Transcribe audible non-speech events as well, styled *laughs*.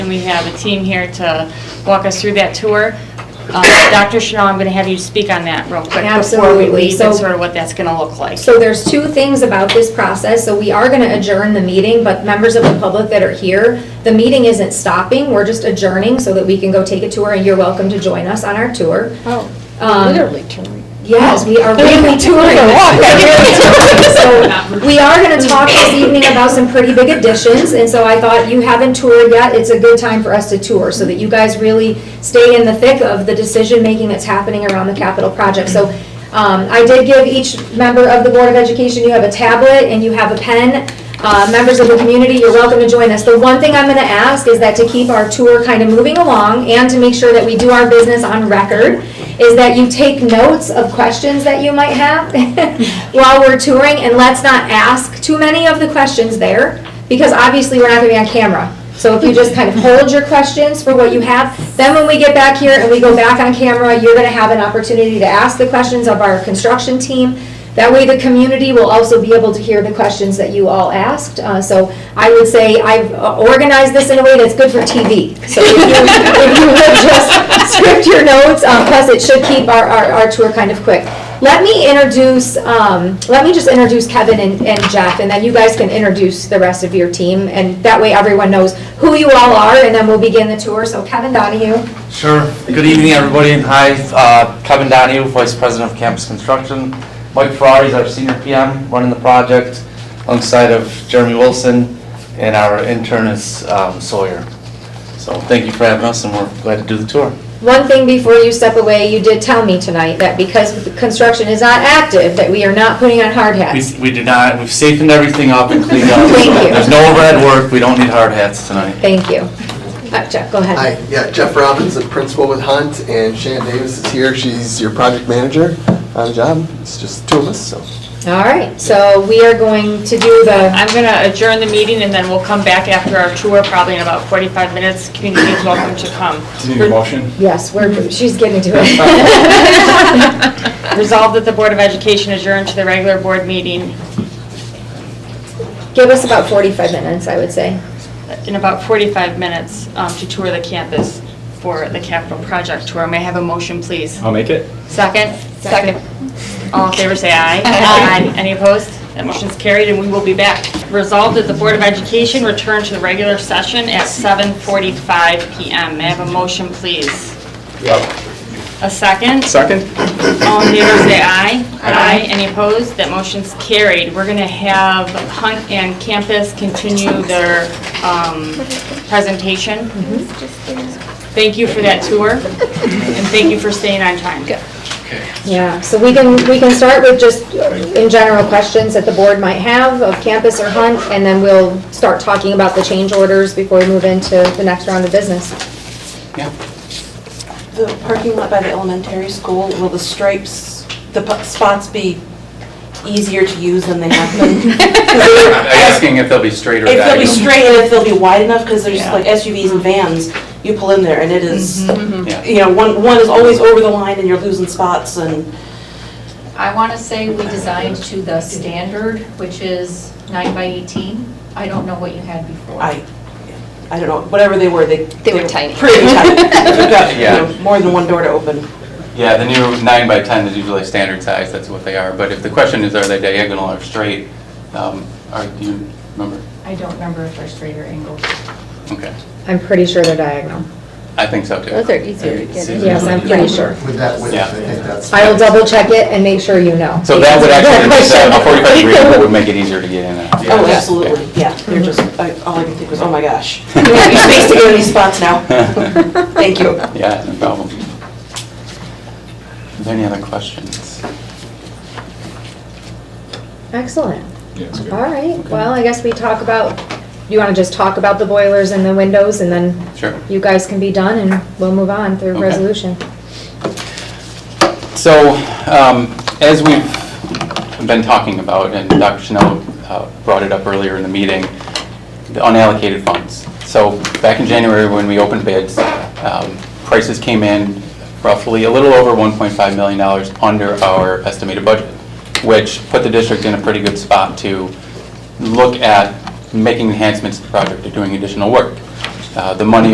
we have a team here to walk us through that tour. Uh, Dr. Chanel, I'm going to have you speak on that real quick before we Absolutely. leave and So- sort of what that's going to look like. So there's two things about this process, so we are gonna adjourn the meeting, but members of the public that are here, the meeting isn't stopping, we're just adjourning so that we can go take a tour, and you're welcome to join us on our tour. Oh, Um, literally touring. Yes, we are really touring. *laughs* So We are gonna talk this evening about some pretty big additions, and so I thought you haven't toured yet, it's a good time for us to tour, so that you guys really stay in the thick of the decision-making that's happening around the capital project. So um, I did give each member of the Board of Education, you have a tablet and you have a pen. Uh, Members of the community, you're welcome to join us. The one thing I'm gonna ask is that to keep our tour kind of moving along and to make sure that we do our business on record, is that you take notes of questions that you might have *laughs* while we're touring, and let's not ask too many of the questions there, because obviously we're not gonna be on camera. So if you just kind of hold your questions for what you have, then when we get back here and we go back on camera, you're gonna have an opportunity to ask the questions of our construction team. That way, the community will also be able to hear the questions that you all asked. Uh, So I would say I've uh, organized this in a way that's good for TV. So if you- if you would just script your notes, um, plus it should keep our, our our tour kind of quick. Let me introduce, um, let me just introduce Kevin and and Jeff, and then you guys can introduce the rest of your team, and that way everyone knows who you all are, and then we'll begin the tour. So Kevin Donahue. Sure. Good evening, everybody. Hi, uh, Kevin Donahue, Vice President of Campus Construction. Mike Ferrari is our senior PM running the project alongside of Jeremy Wilson and our intern is um, Sawyer. So thank you for having us and we're glad to do the tour. One thing before you step away, you did tell me tonight that because the construction is not active, that we are not putting on hard hats. We- We did not, we've safened everything up and cleaned up. Thank you. There's no overhead work. We don't need hard hats tonight. Thank you. Uh, Jeff, go ahead. Hi, yeah, Jeff Robbins, the principal with Hunt, and Shannon Davis is here. She's your project manager on the job. It's just two of us, so. All right, so we are going to do the, I'm going to adjourn the meeting and then we'll come back after our tour, probably in about 45 minutes. Community is welcome to come. Do you need a motion? yes, we're, she's getting to it. *laughs* *laughs* Resolved that the Board of Education adjourn to the regular board meeting Give us about 45 minutes, I would say. in about 45 minutes um, to tour the campus for the capital project tour. May I have a motion, please? I'll make it. Second? Second. All in favor, say aye. Aye. Any opposed? That motion's carried, and we will be back. Resolved that the Board of Education return to the regular session at 7:45 PM. May I have a motion, please? A second? Second? All in favor, say aye. Aye. Any opposed? That motion's carried. We're going to have Hunt and Campus continue their um, presentation. Thank you for that tour, and thank you for staying on time. Yeah, so we can, we can start with just uh, in general questions that the board might have of campus or Hunt, and then we'll start talking about the change orders before we move into the next round of business. The parking lot by the elementary school, will the stripes, the p- spots be easier to use than they have *laughs* been? I'm asking if they'll be straight or If they'll be diagonal. straight and if they'll be wide enough, because there's like SUVs and vans, you pull in there and it is, Yeah. you know, one, one is always over the line and you're losing spots and I want to say we designed to the standard, which is nine by 18. I don't know what you had before. I, I don't know, whatever they were, they. They were tiny. Pretty *laughs* tight. They've got, you Yeah. know, More than one door to open. Yeah, the new nine by ten is usually standard size, that's what they are, but if the question is, are they diagonal or straight, um, are, do you remember? I don't remember if they're straight or angled. Okay, I'm pretty sure they're diagonal. I think so too. Those are easier to get in. Yes, I'm pretty sure. With that width, Yeah. I think that's. I will double check it and make sure you know. So that would actually, Because- a forty-five degree angle *laughs* would make it easier to get in and out. *laughs* Oh, Yeah. absolutely, yeah. They're just, I- all I can think was, oh my gosh. You space to get these spots now. Thank you. *laughs* Yeah, no problem. Are there any other questions? Excellent. Yeah, it's good. All right, well, I guess we talk about, you want to just talk about the boilers and the windows, and then Sure. you guys can be done, and we'll move on through Okay. resolution. So, um, as we've been talking about, and Dr. Chanel uh, brought it up earlier in the meeting, the unallocated funds. So, back in January, when we opened bids, um, prices came in roughly a little over $1.5 million under our estimated budget, which put the district in a pretty good spot to look at making enhancements to the project or doing additional work. Uh, The money